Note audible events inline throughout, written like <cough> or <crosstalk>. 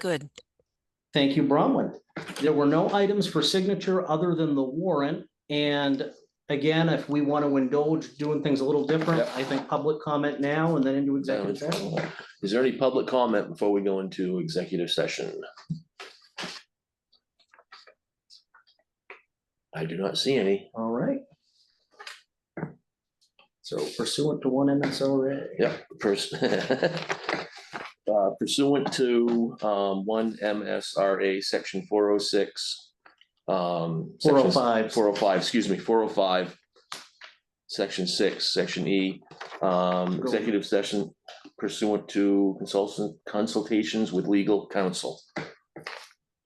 Good. Thank you, Bronwyn. There were no items for signature other than the warrant. And again, if we want to indulge doing things a little different, Yep. I think public comment now and then into executive session. Is there any public comment before we go into executive session? I do not see any. All right. So pursuant to one MSRA. Yep. pers- <laughs> Uh, Pursuant to um, one MSRA, section four oh six. um, Four Four oh five. Four oh five, excuse me, four oh five. Section six, section E, um, executive session pursuant to consultant consultations with legal counsel.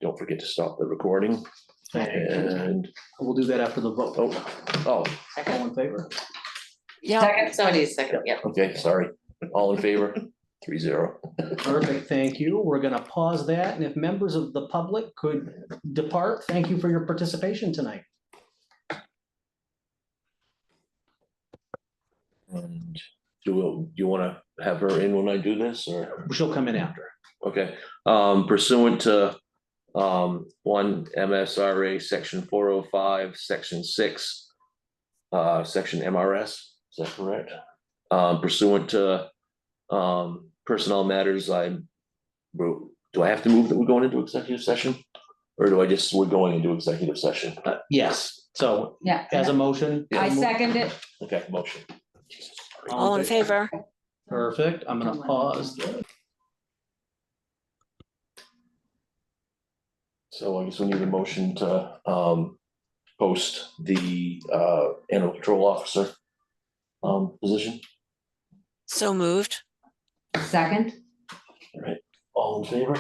Don't forget to stop the recording and, oh We'll do that after the vote. oh, oh, All in favor? Yeah, Second, somebody's second, yeah. okay, sorry. All in favor? Three zero. Perfect, thank you. We're going to pause that. And if members of the public could depart, thank you for your participation tonight. And do, we- you want to have her in when I do this or? She'll come in after. Okay, um, pursuant to, um, one MSRA, section four oh five, section six, uh, section MRS, is that correct? Um, pursuant to, um, personnel matters, I wrote, do I have to move that we're going into executive session? Or do I just, we're going into executive session? Uh, Yes, so Yeah. as a motion. I move- second it. Okay, motion. all in favor? Perfect. I'm gonna pause. So I guess we need a motion to, um, post the, uh, animal control officer, um, position. So moved. Second? All in favor?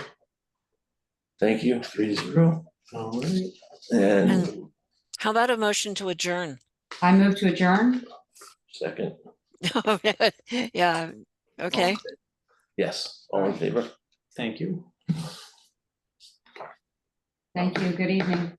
Thank you, three zero. All right. And How about a motion to adjourn? <laughs> I move to adjourn? second, Yeah, okay. yes, all in favor? Thank you. Thank you. Good evening.